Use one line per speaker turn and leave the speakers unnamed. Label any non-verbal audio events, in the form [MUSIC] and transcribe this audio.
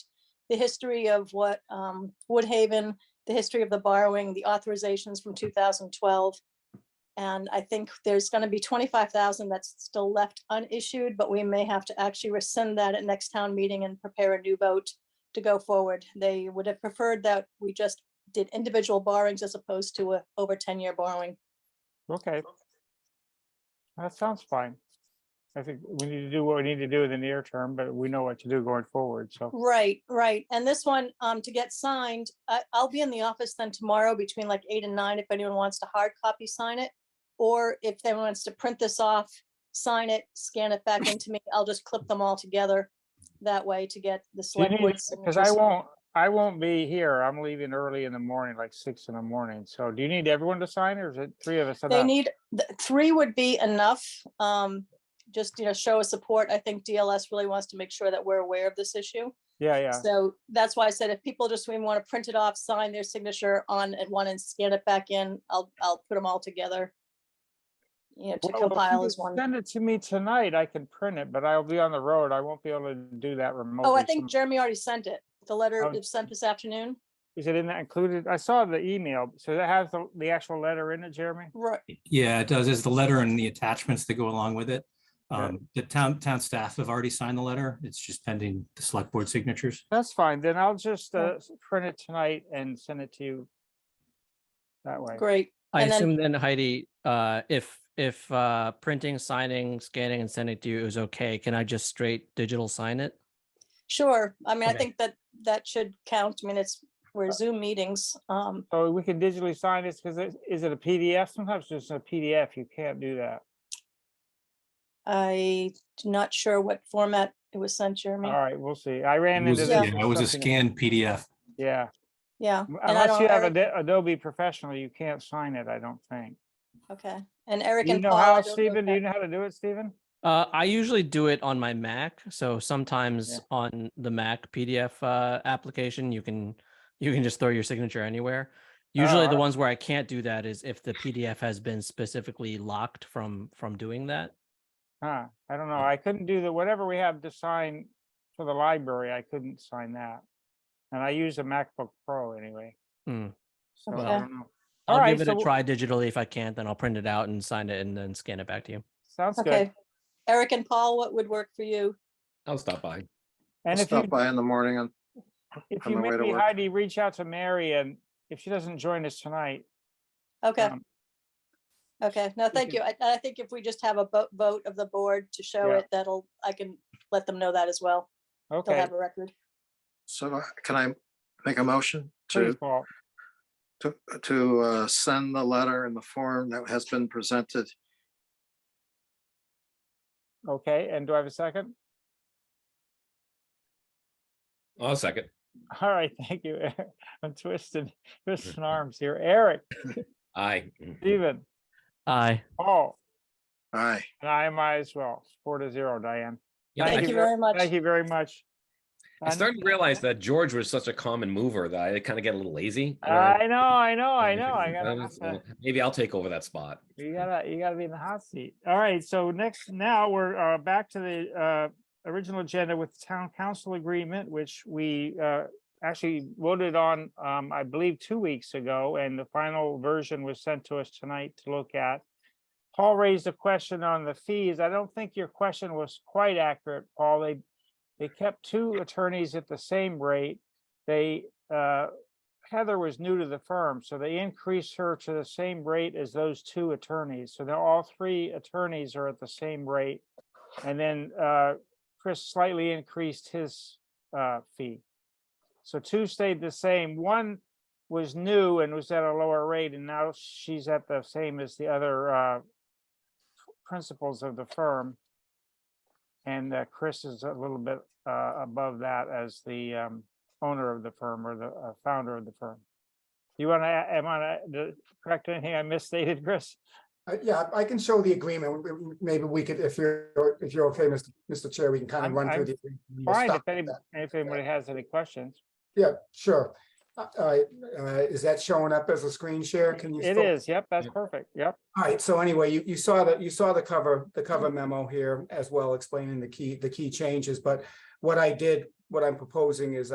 the history of what um, Woodhaven, the history of the borrowing, the authorizations from 2012. And I think there's going to be 25,000 that's still left unissued, but we may have to actually rescind that at next town meeting and prepare a new vote to go forward. They would have preferred that we just did individual borrowings as opposed to a over 10-year borrowing.
Okay. That sounds fine. I think we need to do what we need to do in the near term, but we know what to do going forward,
Mm-hmm.
so.
Right, right. And this one, um, to get signed, I, I'll be in the office then tomorrow between like eight and nine if anyone wants to hard copy sign it. Or if anyone wants to print this off, sign it, scan it back into me, I'll just clip them all together that way to get the select board.
Because I won't, I won't be here. I'm leaving early in the morning, like six in the morning. So do you need everyone to sign or is it three of us?
They
enough?
need, th- three would be enough. Um, just, you know, show of support. I think DLS really wants to make sure that we're aware of this issue.
Yeah, yeah.
So that's why I said if people just want to print it off, sign their signature on at one and scan it back in, I'll, I'll put them all together. You know, to
Well, if you
compile
could
as one.
Send it to me tonight. I can print it, but I'll be on the road. I won't be able to do that remotely.
Oh, I
so-
think Jeremy already sent it. The letter
Oh.
was sent this afternoon.
Is it in that included? I saw the email. So that has the, the actual letter in it, Jeremy?
Right,
Yeah, it does. There's the letter and the attachments that go along with it.
Okay.
Um, the town, town staff have already signed the letter. It's just pending the select board signatures.
That's fine. Then I'll just
Yeah.
uh, s- print it tonight and send it to you. That way.
great.
I
And then-
assume then Heidi, uh, if, if, uh, printing, signing, scanning and sending to you is okay, can I just straight digital sign it?
Sure. I mean, I
Okay.
think that that should count. I mean, it's, we're
Uh.
Zoom meetings. Um,
So we can digitally sign this because it, is it a PDF? Sometimes it's just a PDF. You can't do that.
I'm not sure what format it was sent, Jeremy.
All right, we'll see. I ran
It was-
into
Yeah.
that.
yeah, It was a scanned PDF.
Yeah,
Yeah.
m-
and I
unless
don't-
you have
Eric-
Ado- Adobe Professional, you can't sign it, I don't think.
Okay. And Eric
You
and
know
Paul. I
how,
don't know
Stephen?
if
Do you
that-
know how to do it, Stephen?
Uh, I usually do it on my Mac, so sometimes
Yeah.
on the Mac PDF, uh, application, you can, you can just throw your signature anywhere. Usually
Oh,
the
alright.
ones where I can't do that is if the PDF has been specifically locked from, from doing that.
Huh, I don't know. I couldn't do the, whatever we have to sign for the library, I couldn't sign that. And I use a MacBook Pro anyway.
Hmm.
So
Okay.
I don't know. All
I'll
right,
give it
so
a
w-
try digitally. If I can't, then I'll print it out and sign it and then scan it back to you.
Sounds good.
Okay. Eric and Paul, what would work for you?
I'll stop by.
And
I'll
if you,
stop by in the morning and
if
on
you
my way to
maybe
work.
Heidi, reach out to Mary and if she doesn't join us tonight.
Okay.
um,
Okay, no, thank you.
can-
I, I think if we just have a vote, vote of the board to show
Yeah.
it, that'll, I can let them know that as well. They'll
Okay,
have a record.
so uh, can I make a motion
please,
to,
Paul.
to, to uh, send the letter in the form that has been presented?
Okay, and do I have a second? [LAUGHS]
I'll second.
All right, thank you. Eric. I'm twisted, twisting [LAUGHS] arms here. Eric,
Aye.
Stephen,
Aye.
Paul,
Aye.
and I might as well. Four to zero, Diane.
Yeah,
Thank
Thank
you
you
I-
ver-
very much.
Thank you very much.
I
And-
started to realize that George was such a common mover that I kind of get a little lazy. you know?
I know, I know, I
Um,
know. [LAUGHS] I
that
gotta, have
was-
to-
uh, Maybe I'll take over that spot.
you gotta, you gotta be in the hot seat. All right, so next, now we're uh, back to the uh, original agenda with town council agreement, which we uh, actually voted on, um, I believe, two weeks ago, and the final version was sent to us tonight to look at. Paul raised a question on the fees. I don't think your question was quite accurate, Paul. They, they kept two attorneys at the same rate. They, uh, Heather was new to the firm, so they increased her to the same rate as those two attorneys. So now all three attorneys are at the same rate. And then uh, Chris slightly increased his uh, fee. So two stayed the same. One was new and was at a lower rate, and now she's at the same as the other uh, principals of the firm. And uh, Chris is a little bit uh, above that as the um, owner of the firm or the uh, founder of the firm. You want to, am I, uh, the- correct anything I misstated, Chris?
Uh, Yeah, I can show the agreement. W- w- Maybe we could, if you're, if you're okay, Mr. Mr. Chair, we can kind
I'm-
of run
I'm
through the. agreement and we'll
Fine, if
stop at
any-
that.
if anybody has any questions.
Yeah, sure. Uh, All right, uh, is that showing up as a screen share? Can you?
It
still-
is, yep, that's perfect, yep.
All right, so anyway, you, you saw the, you saw the cover, the cover
Mm-hmm.
memo here as well explaining the key, the key changes, but what I did, what I'm proposing is